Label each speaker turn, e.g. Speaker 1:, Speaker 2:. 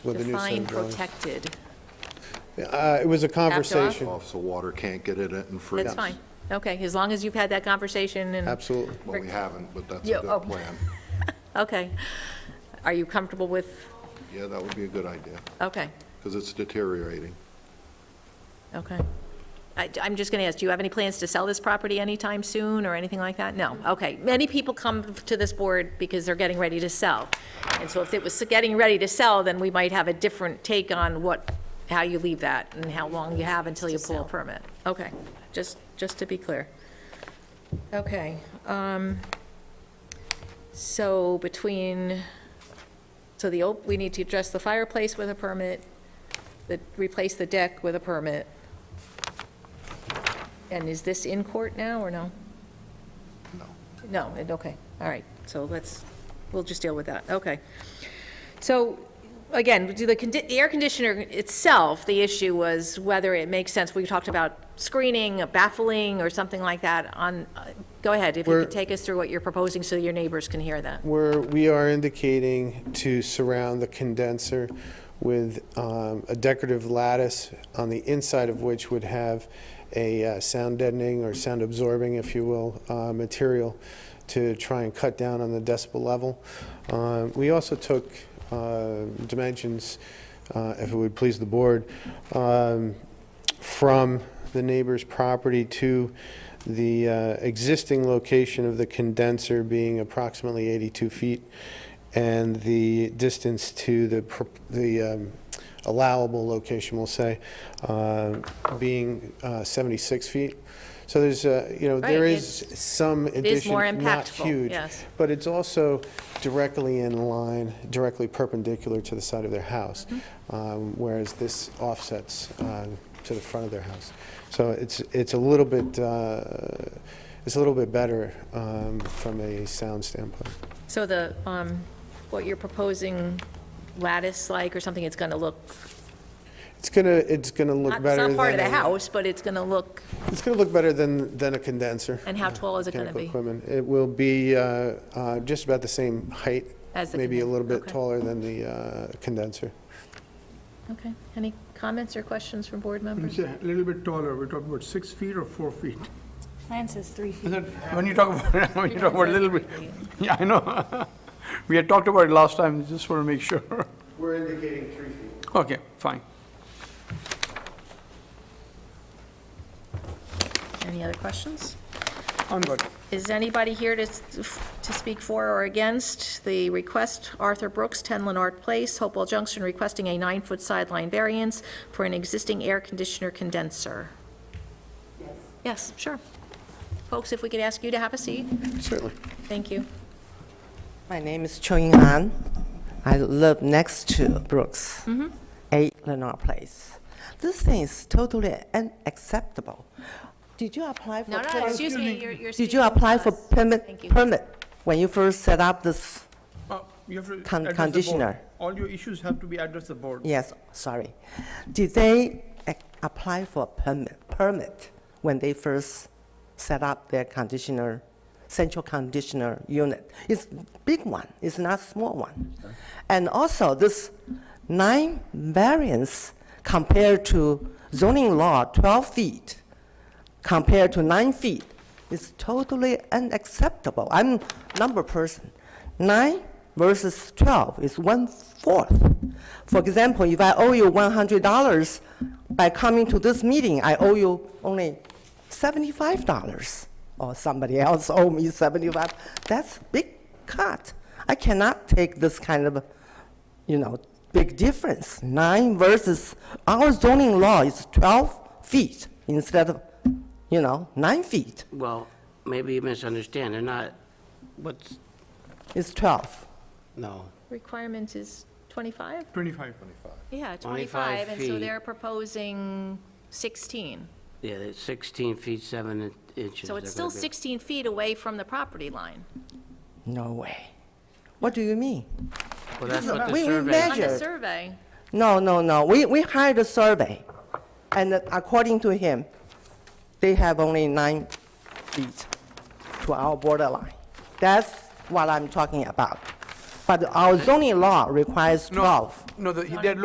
Speaker 1: with the new
Speaker 2: Define
Speaker 1: Sun Dwellings.
Speaker 2: protected.
Speaker 1: Uh, It was a conversation.
Speaker 3: off so water can't get at it and freeze.
Speaker 2: That's fine. Okay, as long as you've had that conversation and.
Speaker 1: Absolutely.
Speaker 3: Well, we haven't, but that's
Speaker 2: Yeah,
Speaker 3: a
Speaker 2: oh.
Speaker 3: good plan.
Speaker 2: Okay. Are you comfortable with,
Speaker 3: Yeah, that would be a good idea,
Speaker 2: okay,
Speaker 3: because it's deteriorating.
Speaker 2: okay. I, am just going to ask, do you have any plans to sell this property anytime soon or anything like that? No, okay. Many people come to this board because they're getting ready to sell. And so if it was getting ready to sell, then we might have a different take on what, how you leave that and how long you have until you pull a permit. Okay, just, just to be clear. Okay, um, so between, so the, op- we need to address the fireplace with a permit, the, replace the deck with a permit. And is this in court now, or no? No. No, it- okay, all right, so let's, we'll just deal with that, okay. So, again, do the, condi- the air conditioner itself, the issue was whether it makes sense, we talked about screening, baffling, or something like that on, uh, go ahead, if you
Speaker 1: We're-
Speaker 2: could take us through what you're proposing so your neighbors can hear that.
Speaker 1: Where we are indicating to surround the condenser with um, a decorative lattice on the inside of which would have a uh, sound deadening or sound absorbing, if you will, uh, material to try and cut down on the decibel level. Uh, We also took uh, dimensions, uh, if it would please the board, um, from the neighbor's property to the uh, existing location of the condenser being approximately 82 feet, and the distance to the, pr- the um, allowable location, we'll say, uh, being uh, 76 feet. So there's, uh, you know, there
Speaker 2: Right,
Speaker 1: is some addition.
Speaker 2: more
Speaker 1: not
Speaker 2: impactful,
Speaker 1: huge,
Speaker 2: yes.
Speaker 1: But it's also directly in line, directly perpendicular to the side of their house,
Speaker 2: Mm-hmm.
Speaker 1: um, whereas this offsets uh, to the front of their house. So it's, it's a little bit, uh, it's a little bit better um, from a sound standpoint.
Speaker 2: So the, um, what you're proposing lattice-like or something, it's gonna look,
Speaker 1: It's gonna, it's gonna look
Speaker 2: not-
Speaker 1: better
Speaker 2: it's
Speaker 1: than.
Speaker 2: not part of the
Speaker 1: a-
Speaker 2: house, but it's gonna look,
Speaker 1: It's going to look better than, than a condenser.
Speaker 2: and how tall is it gonna
Speaker 1: Mechanical
Speaker 2: be?
Speaker 1: equipment. It will be uh, uh, just about the same height.
Speaker 2: As the
Speaker 1: Maybe a
Speaker 2: conden-
Speaker 1: little bit
Speaker 2: okay.
Speaker 1: taller than the uh, condenser.
Speaker 2: Okay, any comments or questions from board members?
Speaker 4: It's a little bit taller, we're talking about six feet or four feet.
Speaker 5: Plan says three feet.
Speaker 4: And then When you talk about, when you talk about a little bit, yeah, I know. We had talked about it last time, just want to make sure.
Speaker 1: We're indicating three feet.
Speaker 4: Okay, fine.
Speaker 2: Any other questions?
Speaker 4: I'm good.
Speaker 2: Is anybody here to, s- to speak for or against the request, Arthur Brooks, 10 Leonard Place, Hopewell Junction, requesting a nine-foot sideline variance for an existing air conditioner condenser? Yes, sure. Folks, if we could ask you to have a seat,
Speaker 1: Certainly.
Speaker 2: thank you.
Speaker 6: My name is Cho Ying An. I live next to Brooks,
Speaker 2: Mm-hmm.
Speaker 6: 8 Lenore Place. This thing is totally unacceptable. Did you apply for?
Speaker 2: No, no,
Speaker 6: permit-
Speaker 2: excuse me, you're, you're
Speaker 6: Did
Speaker 2: speaking
Speaker 6: you apply
Speaker 2: to
Speaker 6: for
Speaker 2: us. Thank
Speaker 6: permit,
Speaker 2: you.
Speaker 6: permit when you first set up this?
Speaker 4: Uh, You have to address
Speaker 6: Con-
Speaker 4: the board.
Speaker 6: conditioner.
Speaker 4: All your issues have to be addressed the board.
Speaker 6: Yes, sorry. Did they ac- apply for permit, permit when they first set up their conditioner, central conditioner unit? It's big one, it's not small one. And also, this nine variance compared to zoning law, 12 feet, compared to nine feet, is totally unacceptable. I'm number person. Nine versus 12 is one-fourth. For example, if I owe you $100, by coming to this meeting, I owe you only $75, or somebody else owe me 75. That's big cut. I cannot take this kind of you know, big difference. Nine versus, our zoning law is 12 feet instead of, you know, nine feet.
Speaker 7: Well, maybe you misunderstand, they're not, what's,
Speaker 6: It's 12.
Speaker 7: no.
Speaker 2: Requirement is 25?
Speaker 4: 25.
Speaker 2: Yeah, 25, and
Speaker 7: 25
Speaker 2: so
Speaker 7: feet.
Speaker 2: they're proposing 16.
Speaker 7: Yeah, it's 16 feet 7 in- inches.
Speaker 2: So it's
Speaker 7: They're
Speaker 2: still
Speaker 7: gonna be-
Speaker 2: 16 feet away from the property line.
Speaker 6: No way. What do you mean?
Speaker 7: Well, that's what the
Speaker 6: We- we
Speaker 7: survey,
Speaker 6: measure-
Speaker 2: On the
Speaker 6: Measured.
Speaker 2: survey,
Speaker 6: No, no, no. We, we hired a survey, and according to him, they have only nine feet to our borderline. That's what I'm talking about.
Speaker 8: But our zoning law requires
Speaker 6: No,
Speaker 8: 12.
Speaker 6: No, the- they're